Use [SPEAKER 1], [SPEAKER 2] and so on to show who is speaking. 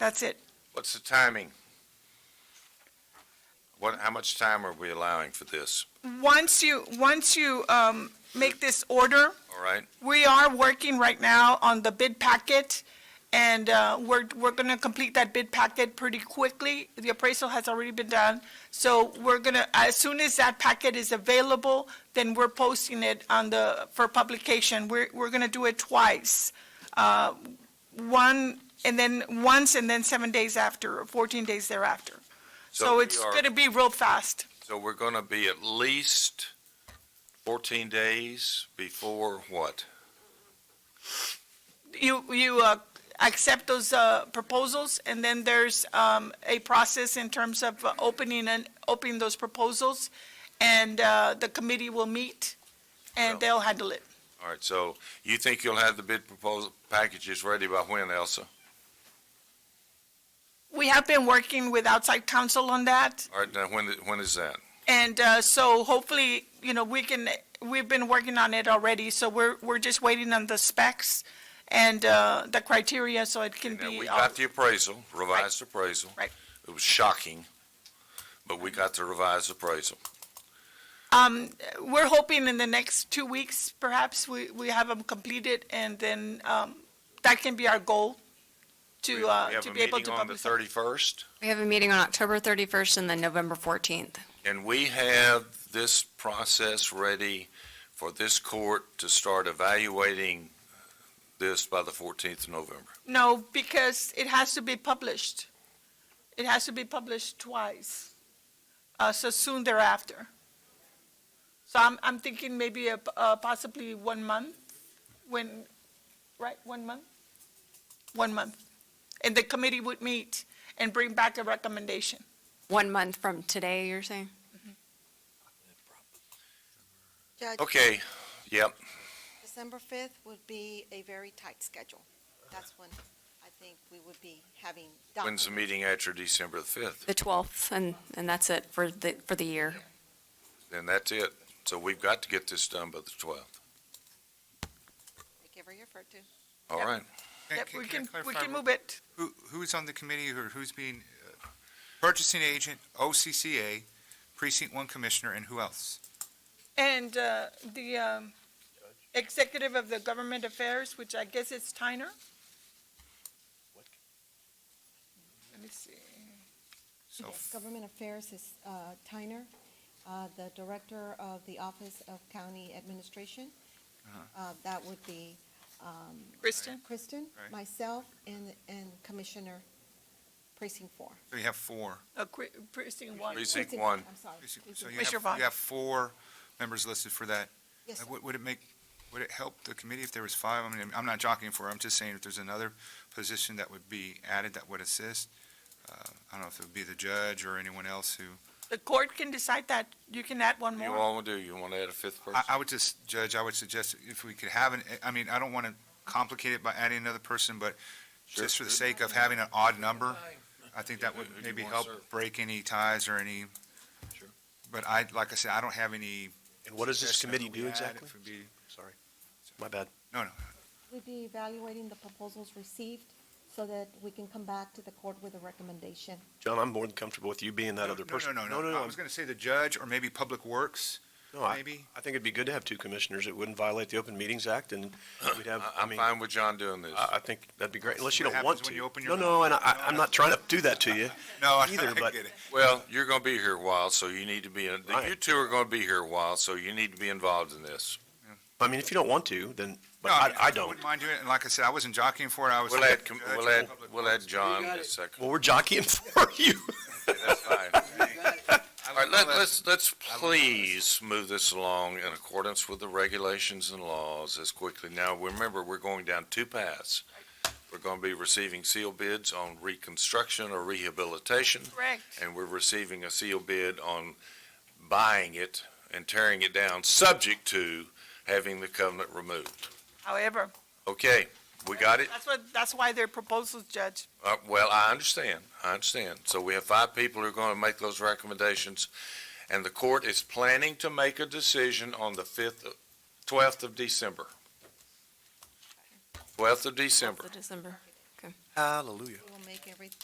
[SPEAKER 1] That's it.
[SPEAKER 2] What's the timing? What, how much time are we allowing for this?
[SPEAKER 1] Once you, once you um, make this order,
[SPEAKER 2] All right?
[SPEAKER 1] we are working right now on the bid packet, and uh, we're, we're going to complete that bid packet pretty quickly. The appraisal has already been done, so we're going to, as soon as that packet is available, then we're posting it on the, for publication. We're, we're going to do it twice. Uh, One, and then, once, and then seven days after, or 14 days thereafter. So
[SPEAKER 2] we
[SPEAKER 1] it's
[SPEAKER 2] are-
[SPEAKER 1] going to be real fast.
[SPEAKER 2] So we're going to be at least 14 days before what?
[SPEAKER 1] you, you uh, accept those uh, proposals, and then there's um, a process in terms of uh, opening and, opening those proposals, and uh, the committee will meet, and they'll handle it.
[SPEAKER 2] All right, so you think you'll have the bid proposal packages ready by when, Elsa?
[SPEAKER 1] We have been working with outside counsel on that,
[SPEAKER 2] All right, now, when, when is that?
[SPEAKER 1] and uh, so hopefully, you know, we can, we've been working on it already, so we're, we're just waiting on the specs and uh, the criteria, so it can
[SPEAKER 2] Now, we
[SPEAKER 1] be, all-
[SPEAKER 2] got the appraisal, revised appraisal.
[SPEAKER 1] uh, Right.
[SPEAKER 2] It was shocking, but we got the revised appraisal.
[SPEAKER 1] Um, we're hoping in the next two weeks, perhaps, we, we have them completed, and then, um, that can be our goal to, uh, to be able to
[SPEAKER 2] We have a meeting on the
[SPEAKER 1] publish.
[SPEAKER 2] 31st,
[SPEAKER 3] We have a meeting on October 31st and then November 14th.
[SPEAKER 2] and we have this process ready for this court to start evaluating uh, this by the 14th of November.
[SPEAKER 1] No, because it has to be published. It has to be published twice, uh, so soon thereafter. So I'm, I'm thinking maybe a, uh, possibly one month, when, right, one month? One month. And the committee would meet and bring back a recommendation.
[SPEAKER 3] One month from today, you're saying?
[SPEAKER 4] Judge,
[SPEAKER 2] Okay, yep,
[SPEAKER 4] December 5th would be a very tight schedule. That's when I think we would be having.
[SPEAKER 2] when's the
[SPEAKER 4] documents.
[SPEAKER 2] meeting after December the 5th?
[SPEAKER 3] The 12th, and, and that's it for the, for the year.
[SPEAKER 2] Then that's it. So we've got to get this done by the 12th.
[SPEAKER 4] Like every effort to.
[SPEAKER 2] All
[SPEAKER 1] Yep.
[SPEAKER 2] right,
[SPEAKER 1] Yep,
[SPEAKER 5] I
[SPEAKER 1] we can, we
[SPEAKER 5] clarify
[SPEAKER 1] can move it.
[SPEAKER 5] Who, who's on the committee or who's being, uh, purchasing agent, OCCA, precinct one commissioner, and who else?
[SPEAKER 1] And uh, the um, executive of the government affairs, which I guess is Tyner. Let me see.
[SPEAKER 5] So
[SPEAKER 6] Yes, Government Affairs is uh, Tyner, uh, the Director of the Office of County Administration. Uh, That would be um,
[SPEAKER 1] Kristen?
[SPEAKER 6] Kristen,
[SPEAKER 5] Right.
[SPEAKER 6] myself, and and Commissioner Precinct Four.
[SPEAKER 5] so you have four.
[SPEAKER 1] Uh, Cri- Kristen Wong.
[SPEAKER 2] Precinct one.
[SPEAKER 6] I'm sorry.
[SPEAKER 5] So
[SPEAKER 6] Precinct-
[SPEAKER 5] you
[SPEAKER 1] Mr.
[SPEAKER 5] have,
[SPEAKER 1] Vaughn.
[SPEAKER 5] you have four members listed for that.
[SPEAKER 6] Yes,
[SPEAKER 5] Uh,
[SPEAKER 6] sir.
[SPEAKER 5] Would, would it make, would it help the committee if there was five? I mean, I'm not jockeying for it, I'm just saying if there's another position that would be added that would assist. uh, I don't know if it would be the judge or anyone else who,
[SPEAKER 1] The court can decide that. You can add one
[SPEAKER 2] you
[SPEAKER 1] more.
[SPEAKER 2] all want to do, you want to add a fifth person?
[SPEAKER 5] I, I would just, Judge, I would suggest if we could have an, I mean, I don't want to complicate it by adding another person, but
[SPEAKER 2] Sure.
[SPEAKER 5] just for the sake of having an odd number, I think that
[SPEAKER 2] Yeah,
[SPEAKER 5] would
[SPEAKER 2] who do you
[SPEAKER 5] maybe
[SPEAKER 2] want
[SPEAKER 5] help
[SPEAKER 2] serve?
[SPEAKER 5] break any ties or any.
[SPEAKER 7] Sure.
[SPEAKER 5] But I, like I said, I don't have any.
[SPEAKER 7] And what does this
[SPEAKER 5] suggestion of
[SPEAKER 7] committee
[SPEAKER 5] who we
[SPEAKER 7] do
[SPEAKER 5] add.
[SPEAKER 7] exactly?
[SPEAKER 5] It would be-
[SPEAKER 7] Sorry, my bad.
[SPEAKER 5] No, no,
[SPEAKER 6] We'd be evaluating the proposals received so that we can come back to the court with a recommendation.
[SPEAKER 7] John, I'm more than comfortable with you being that other person.
[SPEAKER 5] No, no, no, no, I was going to say the judge or maybe Public Works,
[SPEAKER 7] No, I,
[SPEAKER 5] maybe.
[SPEAKER 7] I think it'd be good to have two commissioners. It wouldn't violate the Open Meetings Act and we'd have,
[SPEAKER 2] I-
[SPEAKER 7] I
[SPEAKER 2] I'm
[SPEAKER 7] mean,
[SPEAKER 2] fine with John doing this.
[SPEAKER 7] I,
[SPEAKER 5] uh,
[SPEAKER 7] I think that'd be great, unless you
[SPEAKER 5] What
[SPEAKER 7] don't want
[SPEAKER 5] happens
[SPEAKER 7] to.
[SPEAKER 5] when you open
[SPEAKER 7] No,
[SPEAKER 5] your
[SPEAKER 7] no,
[SPEAKER 5] mouth?
[SPEAKER 7] and I, I'm not trying to do that to you.
[SPEAKER 5] No, I
[SPEAKER 7] Either,
[SPEAKER 5] I
[SPEAKER 7] but-
[SPEAKER 5] get it.
[SPEAKER 2] Well, you're going to be here a while, so you need to be, in-
[SPEAKER 7] Right.
[SPEAKER 2] you two are going to be here a while, so you need to be involved in this.
[SPEAKER 7] I mean, if you don't want to, then, but
[SPEAKER 5] No,
[SPEAKER 7] I,
[SPEAKER 5] mean,
[SPEAKER 7] I don't.
[SPEAKER 5] wouldn't mind doing it, and like I said, I wasn't jockeying for it, I was.
[SPEAKER 2] We'll add, com-
[SPEAKER 5] Judge
[SPEAKER 2] we'll
[SPEAKER 5] or
[SPEAKER 2] add,
[SPEAKER 5] uh, Public
[SPEAKER 2] we'll
[SPEAKER 5] Works.
[SPEAKER 2] add John in a second.
[SPEAKER 7] Well, we're jockeying for you.
[SPEAKER 2] That's fine.
[SPEAKER 5] I
[SPEAKER 2] All right,
[SPEAKER 5] will
[SPEAKER 2] let,
[SPEAKER 5] let-
[SPEAKER 2] let's, let's
[SPEAKER 5] I will let-
[SPEAKER 2] please move this along in accordance with the regulations and laws as quickly. Now, remember, we're going down two paths. We're going to be receiving seal bids on reconstruction or rehabilitation,
[SPEAKER 1] Correct.
[SPEAKER 2] and we're receiving a seal bid on buying it and tearing it down, subject to having the covenant removed.
[SPEAKER 1] However.
[SPEAKER 2] Okay, we got it?
[SPEAKER 1] That's what, that's why they're proposals, Judge.
[SPEAKER 2] Uh, well, I understand, I understand. So we have five people who are going to make those recommendations, and the court is planning to make a decision on the fifth, twelfth of December. Twelfth of December.
[SPEAKER 3] The December.
[SPEAKER 6] We will make every,